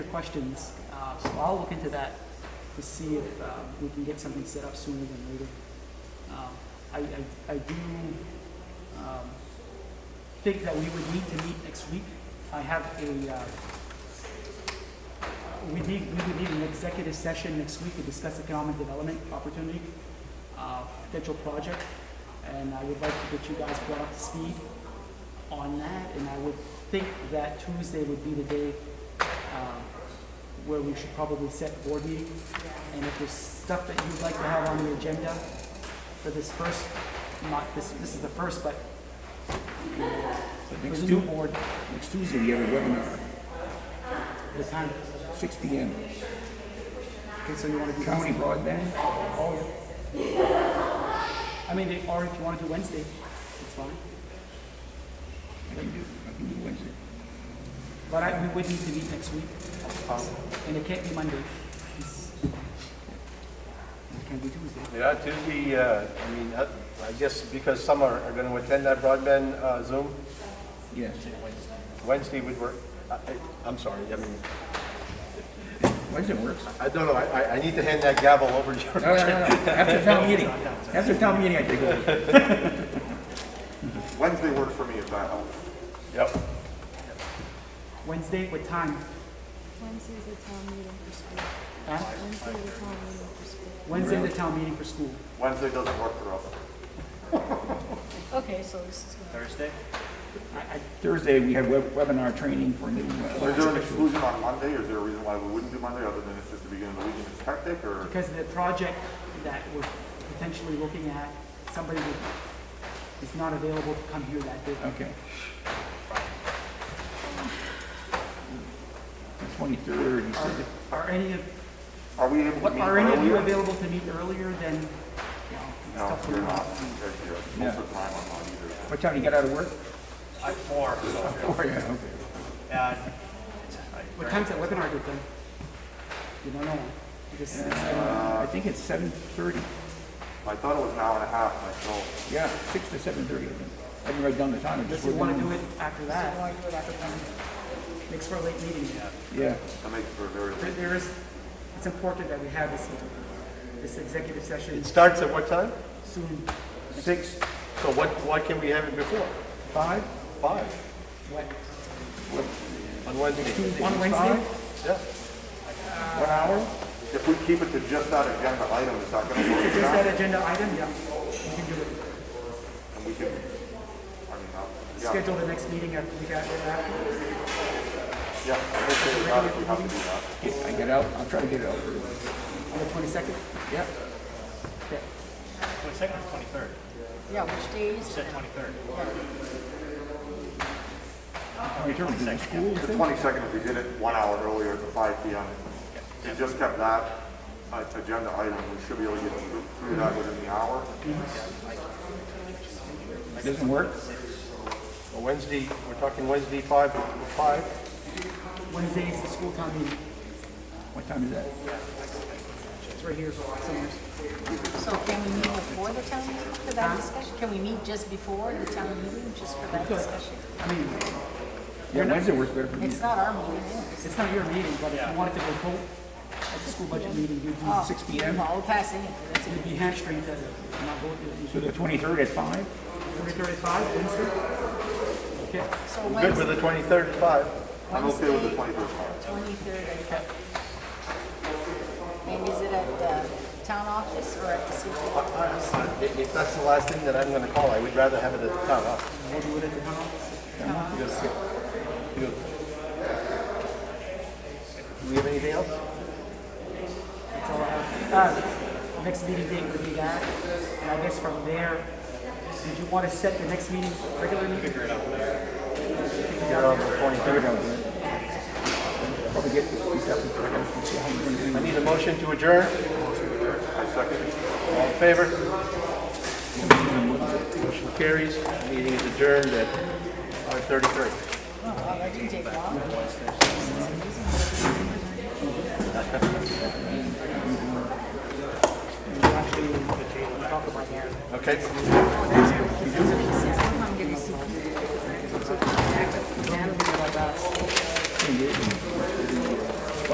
Your questions, uh, so I'll look into that to see if uh, we can get something set up sooner than later. Um, I, I, I do um, think that we would need to meet next week. I have a, uh, we need, we would need an executive session next week to discuss economic development opportunity, uh, potential project, and I would like to get you guys brought up to speed on that, and I would think that Tuesday would be the day um, where we should probably set board meeting. And if there's stuff that you'd like to have on the agenda for this first, not, this, this is the first, but But for Next the new Tuesday, board, next Tuesday, we have a webinar, the time. six P M. Okay, so you want to do County broadband, Oh, yeah. I mean, they- or if you want to do Wednesday, it's fine. I can do, I can do Wednesday. But I, we would need to meet next week. And it can't be Monday. It's- It can be Tuesday. Yeah, Tuesday, uh, I mean, uh, I guess because some are, are gonna attend that broadband, uh, Zoom, Yes. Wednesday would work. I, I- I'm sorry, I mean, Wednesday works. I don't know, I, I- I need to hand that gavel over to you. No, no, no, no. After town meeting, after town meeting, I take over. Wednesday worked for me if that helps. Yep. Wednesday, what time? Wednesday's the town meeting for school. Huh? Wednesday's the town meeting for school. Wednesday, the town meeting for school. Wednesday doesn't work for us. Okay, so this is. I, I, Thursday, we have web- webinar training for new, uh, Is there an exclusion on Monday, or is there a reason why we wouldn't do Monday, other than it's just the beginning of the week and it's hectic, or? Because the project that we're potentially looking at, somebody would- is not available to come here that day. okay. Twenty-third, you Are, said, are any of, Are we able to what, meet are any of you earlier? available to meet earlier than, you know, it's No, tough to you're know. not, because you're, most of the time I'm not either. what time you get out of work? At four, so, Four, yeah, okay. uh, What time's that webinar get done? You don't know. You just- Uh, I think it's seven thirty, I thought it was an hour and a half myself. yeah, six to seven thirty, I think. I haven't read down the time, I just. Unless you wanna wrote down- do it after that. Makes for a late meeting. Yeah, That makes for a very There- late. there is, it's important that we have this, this executive session It starts at what time? soon. Six. So what, why can we have it before? Five? Five, What, on Wednesday. on Wednesday? Yeah. one hour? If we keep it to just that agenda item, it's not gonna work. Is It's not- that agenda item? Yeah, we can do it. And we can, I mean, I'll- yeah, Schedule the next meeting after we got after. yeah, I'm okay with that if we have to do that. Okay, I get out, I'll try to get it out early. On the twenty-second? Yep. Yeah. twenty-second or twenty-third? Yeah, which day You said twenty-third. Return to the school, The twenty-second, if we did it one hour earlier to five P M. If we just kept that uh, agenda item, we should be able to get through through that within the hour. doesn't work? Well, Wednesday, we're talking Wednesday, five, five. Wednesday is the school town meeting. What time is that? It's right here somewhere. So can we meet before the town meeting for that discussion? Can we meet just before the town meeting, just for that discussion? I mean, Yeah, Wednesday works better for me. It's not our meeting, anyways. it's not your meeting, but if you wanted to go vote at the school budget meeting, you'd be, Oh. Six P M, Well, we'll pass anything, that's you'd be hamstringed to not vote. so the twenty-third at five? Three thirty-five, Wednesday? Okay, it. So Good with the twenty-third at five. I'm okay with the Wednesday, twenty-first hour. Twenty-third. And is it at the town office or at the city? I- If if that's the last thing that I'm gonna call, I would rather have it at the town office. we'll do it at the town office. Do we have anything else? That's all I have. Uh, Next meeting date would be that, and I guess from there, did you want to set the next meeting, regular meeting? Figure it out. Probably get, we got the twenty-third, and see how we're gonna do. I need a motion to adjourn. I second it. All in favor? Motion carries. Meeting is adjourned at 5:33. Oh, wow, that didn't take long. Actually, talk about that. Okay?